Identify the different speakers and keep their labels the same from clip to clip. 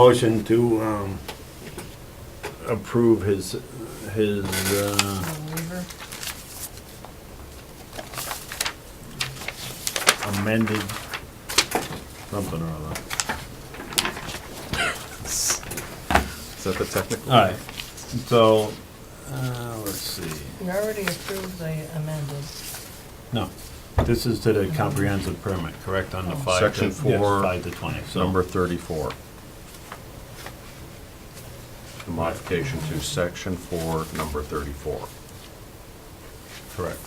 Speaker 1: Motion to um, approve his, his, uh, amended something or other.
Speaker 2: Is that the technical?
Speaker 1: All right, so, uh, let's see.
Speaker 3: We already approved the amended.
Speaker 1: No, this is to the comprehensive permit, correct, on the five. to-
Speaker 2: Section
Speaker 1: yes,
Speaker 2: four,
Speaker 1: Five to twenty, so.
Speaker 2: Number 34. The modification to section four, number 34.
Speaker 1: Correct.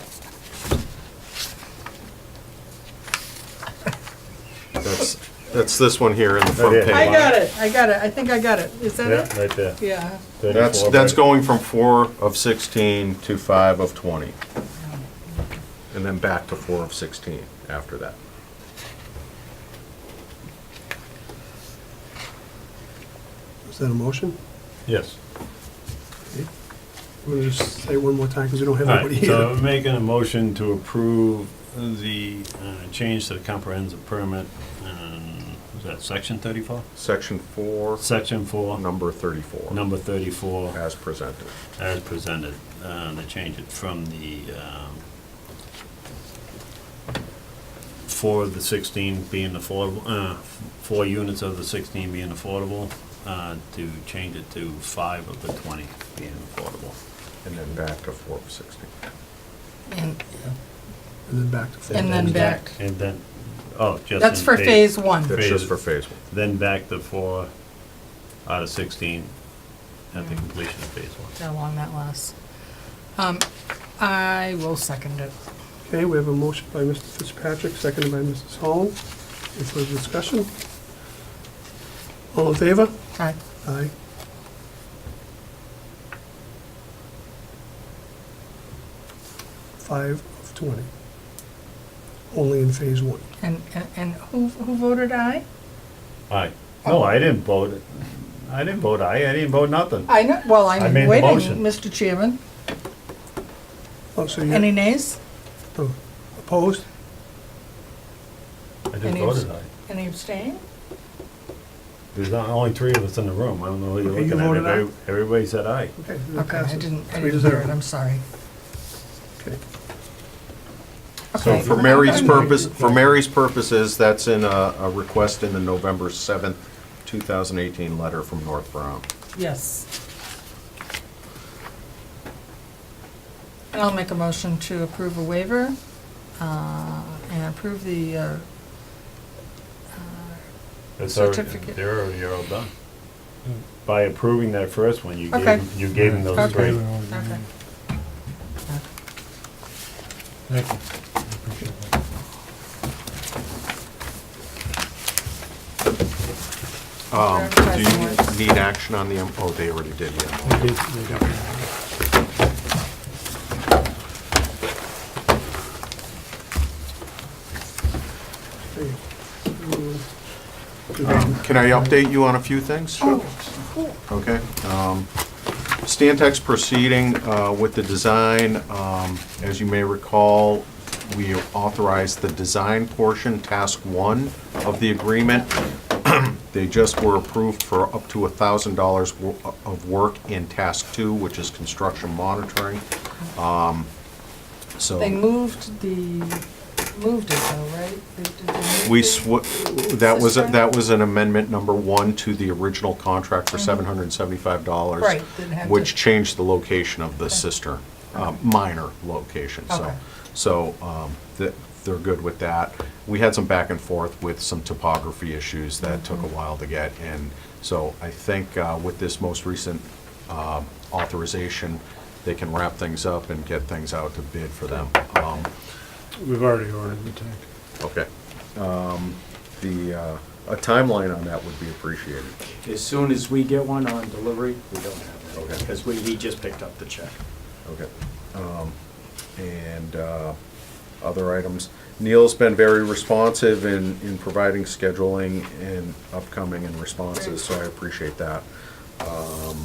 Speaker 2: That's, that's this one here in the
Speaker 1: That
Speaker 2: front
Speaker 1: is.
Speaker 2: page.
Speaker 3: I got it, I got it, I think I got it. Is that it?
Speaker 1: right there.
Speaker 3: Yeah.
Speaker 2: That's, that's going from four of 16 to five of 20. And then back to four of 16 after that.
Speaker 4: Is that a motion?
Speaker 1: Yes.
Speaker 4: I'm gonna just say it one more time, because we don't have
Speaker 1: All right,
Speaker 4: anybody
Speaker 1: so
Speaker 4: here.
Speaker 1: I'm making a motion to approve the uh, change to the comprehensive permit, um, is that section thirty-four?
Speaker 2: Section four,
Speaker 1: Section four,
Speaker 2: number 34,
Speaker 1: number thirty-four,
Speaker 2: as presented.
Speaker 1: as presented, uh, to change it from the, um, four of the sixteen being affordable, uh, four units of the sixteen being affordable, uh, to change it to five of the twenty being affordable.
Speaker 2: And then back to four of 16.
Speaker 3: And,
Speaker 4: And then back to full.
Speaker 3: and then back.
Speaker 1: And then, oh, just. in
Speaker 3: That's for
Speaker 1: phase-
Speaker 3: phase one.
Speaker 2: That's
Speaker 1: Phase-
Speaker 2: just for phase one.
Speaker 1: then back to four out of 16 at the completion of phase one.
Speaker 3: How long that lasts. Um, I will second it.
Speaker 4: Okay, we have a motion by Mr. Fitzpatrick, seconded by Mrs. Holland. Any further discussion? All in favor?
Speaker 3: Aye.
Speaker 4: Aye. Five of 20. Only in phase one.
Speaker 3: And, and- and who, who voted aye?
Speaker 1: Aye. No, I didn't vote, I didn't vote aye, I didn't vote nothing.
Speaker 3: I know, well, I'm
Speaker 1: made the
Speaker 3: waiting,
Speaker 1: motion.
Speaker 3: Mr. Chairman.
Speaker 4: Oh, so
Speaker 3: Any
Speaker 4: you
Speaker 3: nays?
Speaker 4: oh, opposed?
Speaker 1: I
Speaker 3: Any
Speaker 1: didn't vote aye.
Speaker 3: Any abstain?
Speaker 1: There's not- only three of us in the room, I don't know who
Speaker 4: Okay, you
Speaker 1: you're looking
Speaker 4: voted
Speaker 1: at.
Speaker 4: aye?
Speaker 1: Every- Everybody said aye.
Speaker 4: Okay. then it
Speaker 3: Okay, I
Speaker 4: passes.
Speaker 3: didn't, I
Speaker 4: Three to
Speaker 3: didn't hear
Speaker 4: zero.
Speaker 3: it, I'm sorry.
Speaker 4: Okay.
Speaker 2: So
Speaker 3: Okay.
Speaker 2: for Mary's purpose, for Mary's purposes, that's in a, a request in the November 7th, 2018 letter from North Brown.
Speaker 3: Yes. And I'll make a motion to approve a waiver uh, and approve the, uh,
Speaker 1: It's already-
Speaker 3: Certificate. Hmm.
Speaker 1: They're already all done. By approving that first one, you gave,
Speaker 3: Okay.
Speaker 1: 'em- you gave them those three.
Speaker 3: Okay. okay.
Speaker 5: Thank you. I appreciate that.
Speaker 2: Um,
Speaker 3: Clarify some
Speaker 2: Do you
Speaker 3: more.
Speaker 2: need action on the, M- oh, they already did, yeah.
Speaker 5: We did- we did that.
Speaker 4: Okay. Mm.
Speaker 3: Um,
Speaker 2: Can I update you on a few things?
Speaker 3: Oh,
Speaker 2: Sure. Okay. um, Stantec's proceeding uh, with the design, um, as you may recall, we authorized the design portion, task one of the agreement. They just were approved for up to $1,000 wo- uh, of work in task two, which is construction monitoring. Um, So.
Speaker 3: They moved the, moved it though, right? They- did they move
Speaker 2: We
Speaker 3: it?
Speaker 2: sw, that was,
Speaker 3: Sister?
Speaker 2: that was an amendment number one to the original contract for seven hundred and seventy-five dollars.
Speaker 3: Mm-hmm. Right, didn't have to-
Speaker 2: Which changed the location of the cistern, uh, minor location, so.
Speaker 3: Okay.
Speaker 2: So, um, th- they're good with that. We had some back and forth with some topography issues that
Speaker 3: Mm-hmm.
Speaker 2: took a while to get, and so I think, uh, with this most recent, um, authorization, they can wrap things up and get things out to bid for them. Um,
Speaker 5: We've already ordered the tank.
Speaker 2: Okay. Um, The, uh, a timeline on that would be appreciated.
Speaker 6: As soon as we get one on delivery, we don't have
Speaker 2: Okay.
Speaker 6: that, because we, we just picked up the check.
Speaker 2: Okay. Um, And uh, other items. Neil's been very responsive in, in providing scheduling and upcoming and responses, so I appreciate that. Um,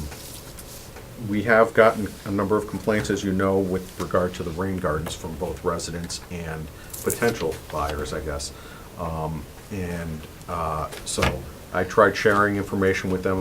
Speaker 2: We have gotten a number of complaints, as you know, with regard to the rain gardens from both residents and potential buyers, I guess. Um, And uh, so I tried sharing information with them